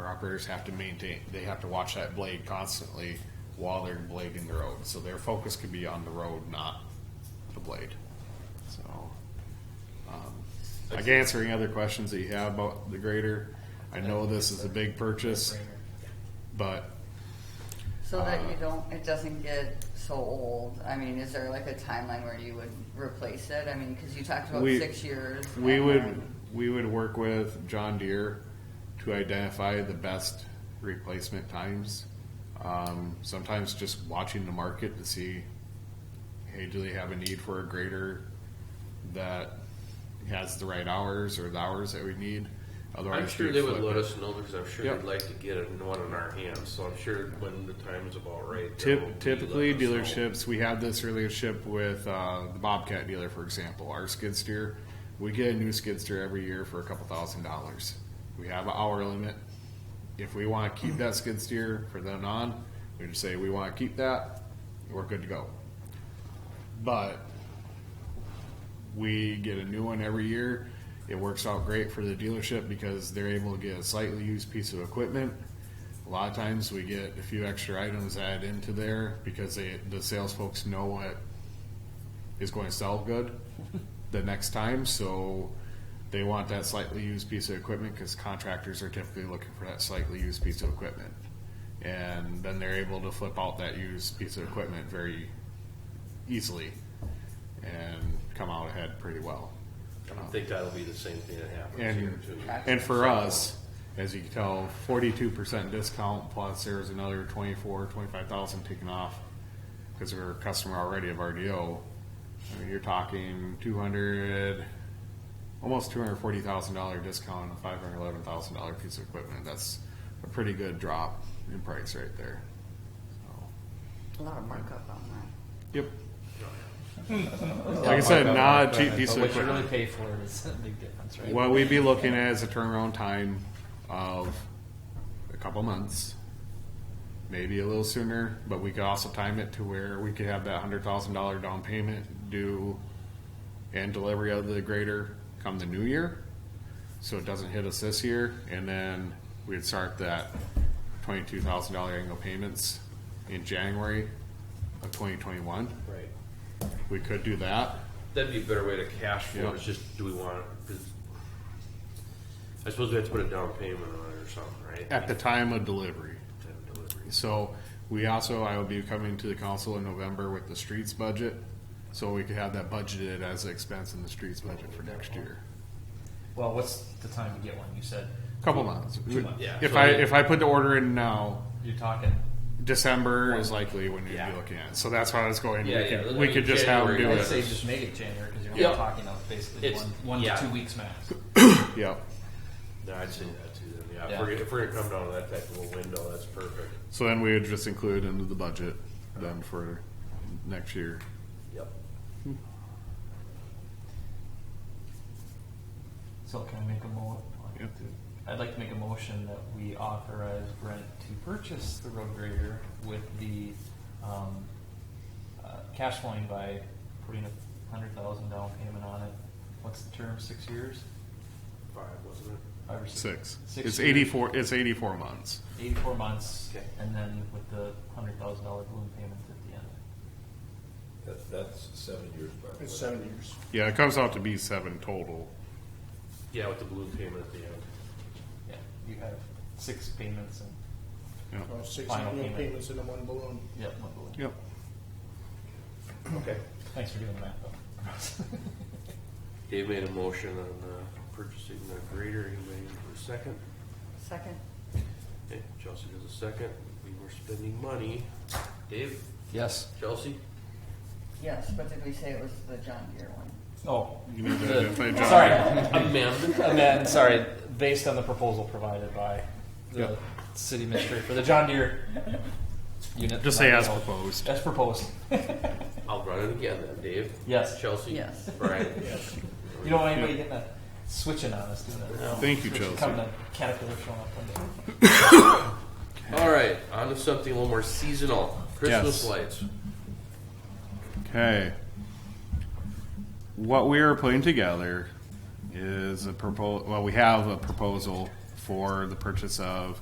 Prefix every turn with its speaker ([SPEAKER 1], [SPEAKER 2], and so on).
[SPEAKER 1] operators have to maintain, they have to watch that blade constantly while they're blading the road, so their focus could be on the road, not the blade, so. um, Like answering other questions that you have about the grader, I know this is a big purchase, but
[SPEAKER 2] So that you don't, it doesn't get so old, I mean, is there like a timeline where you would replace it? I mean, cause you talked about
[SPEAKER 1] We-
[SPEAKER 2] six years.
[SPEAKER 1] We
[SPEAKER 2] and
[SPEAKER 1] would,
[SPEAKER 2] then-
[SPEAKER 1] we would work with John Deere to identify the best replacement times. Um, sometimes just watching the market to see, hey, do they have a need for a grader that has the right hours or the hours that we need?
[SPEAKER 3] I'm
[SPEAKER 1] Otherwise,
[SPEAKER 3] sure
[SPEAKER 1] we'd
[SPEAKER 3] they would
[SPEAKER 1] flip
[SPEAKER 3] let
[SPEAKER 1] it.
[SPEAKER 3] us know because I'm sure
[SPEAKER 1] Yep.
[SPEAKER 3] they'd like to get it- one in our hands. So I'm sure when the time's about right. they'll be
[SPEAKER 1] Typ- Typically,
[SPEAKER 3] letting us know.
[SPEAKER 1] dealerships, we have this relationship with, uh, the Bobcat dealer, for example, our skid steer. We get a new skid steer every year for a couple thousand dollars. We have an hour limit. If we wanna keep that skid steer for then on, we just say, we wanna keep that, we're good to go. But we get a new one every year. It works out great for the dealership because they're able to get a slightly used piece of equipment. A lot of times we get a few extra items added into there because they, the sales folks know what is going to sell good the next time, so they want that slightly used piece of equipment because contractors are typically looking for that slightly used piece of equipment. And then they're able to flip out that used piece of equipment very easily and come out ahead pretty well.
[SPEAKER 3] I think that'll be the same thing that happens here
[SPEAKER 1] And,
[SPEAKER 3] too.
[SPEAKER 1] and for us, as you can tell, forty-two percent discount plus there was another twenty-four, twenty-five thousand taken off because we were a customer already of RDO. I mean, you're talking two hundred, almost two hundred forty thousand dollar discount on a five hundred eleven thousand dollar piece of equipment. That's a pretty good drop in price right there. So,
[SPEAKER 2] A lot of markup on that.
[SPEAKER 1] Yep. Like I said, not a cheap piece
[SPEAKER 4] But
[SPEAKER 1] of
[SPEAKER 4] what you
[SPEAKER 1] equipment.
[SPEAKER 4] really pay for it is a big difference, right?
[SPEAKER 1] What we'd be looking at is a turnaround time of a couple months, maybe a little sooner, but we could also time it to where we could have that hundred thousand dollar down payment due and delivery of the grader come the new year. So it doesn't hit us this year, and then we'd start that twenty-two thousand dollar annual payments in January of twenty twenty-one.
[SPEAKER 3] Right.
[SPEAKER 1] We could do that.
[SPEAKER 3] That'd be a better way to cash flow.
[SPEAKER 1] Yeah.
[SPEAKER 3] It's just, do we want it? 'Cause I suppose we have to put a down payment on it or something, right?
[SPEAKER 1] At the time of delivery.
[SPEAKER 3] Time of delivery.
[SPEAKER 1] So we also, I will be coming to the council in November with the streets budget, so we could have that budgeted as an expense in the streets budget for next year.
[SPEAKER 4] Well, what's the time to get one? You said
[SPEAKER 1] Couple months.
[SPEAKER 4] Two months.
[SPEAKER 3] Yeah.
[SPEAKER 1] If I, if I put the order in now,
[SPEAKER 4] you're talking.
[SPEAKER 1] December is likely when you'd be
[SPEAKER 3] Yeah.
[SPEAKER 1] looking at. it. So that's why I was going, we
[SPEAKER 3] Yeah, yeah,
[SPEAKER 1] could,
[SPEAKER 3] I
[SPEAKER 1] we
[SPEAKER 3] mean,
[SPEAKER 1] could just have them do
[SPEAKER 3] January.
[SPEAKER 4] I'd say
[SPEAKER 1] it.
[SPEAKER 4] just make it January because you're only
[SPEAKER 3] Yeah.
[SPEAKER 4] talking of basically
[SPEAKER 3] It's-
[SPEAKER 4] one, one
[SPEAKER 3] yeah.
[SPEAKER 4] to two weeks max.
[SPEAKER 1] Yep.
[SPEAKER 3] No, I'd say that too. Then. Yeah.
[SPEAKER 4] Yeah.
[SPEAKER 3] If, we're, if we're gonna come down to that type of a window, that's perfect.
[SPEAKER 1] So then we would just include into the budget then for next year.
[SPEAKER 3] Yep.
[SPEAKER 4] So can we make a mo?
[SPEAKER 1] Yeah.
[SPEAKER 4] I'd like to make a motion that we authorize Brent to purchase the road grader with the um, uh, cash flowing by putting a hundred thousand down payment on it. What's the term? Six years?
[SPEAKER 3] Five, wasn't it?
[SPEAKER 4] Five or
[SPEAKER 1] Six.
[SPEAKER 4] Six
[SPEAKER 1] It's
[SPEAKER 4] years.
[SPEAKER 1] eighty-four, it's eighty-four months.
[SPEAKER 4] Eighty-four months,
[SPEAKER 3] Okay.
[SPEAKER 4] and then with the hundred thousand dollar balloon payment at the end.
[SPEAKER 5] That's, that's seven years, by the
[SPEAKER 6] It's
[SPEAKER 5] way.
[SPEAKER 6] seven years.
[SPEAKER 1] Yeah, it comes out to be seven total.
[SPEAKER 3] Yeah, with the balloon payment at the end.
[SPEAKER 4] Yeah, you have six payments and,
[SPEAKER 1] Yep.
[SPEAKER 6] Well, Six
[SPEAKER 4] Final
[SPEAKER 6] annual
[SPEAKER 4] payment.
[SPEAKER 6] payments in the one balloon.
[SPEAKER 4] yeah, one balloon.
[SPEAKER 1] Yep.
[SPEAKER 3] Okay.
[SPEAKER 4] Thanks for doing the math though.
[SPEAKER 3] Dave made a motion on uh, purchasing the grader. Anybody for a second?
[SPEAKER 2] Second,
[SPEAKER 3] Okay, Chelsea does a second. We were spending money. Dave,
[SPEAKER 4] Yes.
[SPEAKER 3] Chelsea?
[SPEAKER 2] yes, but did we say it was the John Deere one?
[SPEAKER 4] Oh,
[SPEAKER 1] You need to
[SPEAKER 4] the-
[SPEAKER 1] identify John.
[SPEAKER 4] sorry,
[SPEAKER 3] Amend.
[SPEAKER 4] And then, sorry, based on the proposal provided by the
[SPEAKER 1] Yep.
[SPEAKER 4] city administrator for the John Deere unit.
[SPEAKER 1] Just say as
[SPEAKER 4] No,
[SPEAKER 1] proposed.
[SPEAKER 4] As proposed.
[SPEAKER 3] I'll run it again then. Dave?
[SPEAKER 4] Yes.
[SPEAKER 3] Chelsea?
[SPEAKER 2] Yes.
[SPEAKER 3] Brian? Yes.
[SPEAKER 4] You don't want anybody getting that switching on us, doing that.
[SPEAKER 1] Thank you,
[SPEAKER 4] Switching,
[SPEAKER 1] Chelsea.
[SPEAKER 4] Coming to Caterpillar showing up one day.
[SPEAKER 3] All right, on to something a little more seasonal. Christmas
[SPEAKER 1] Yes.
[SPEAKER 3] lights.
[SPEAKER 1] Okay. What we are putting together is a proposal, well, we have a proposal for the purchase of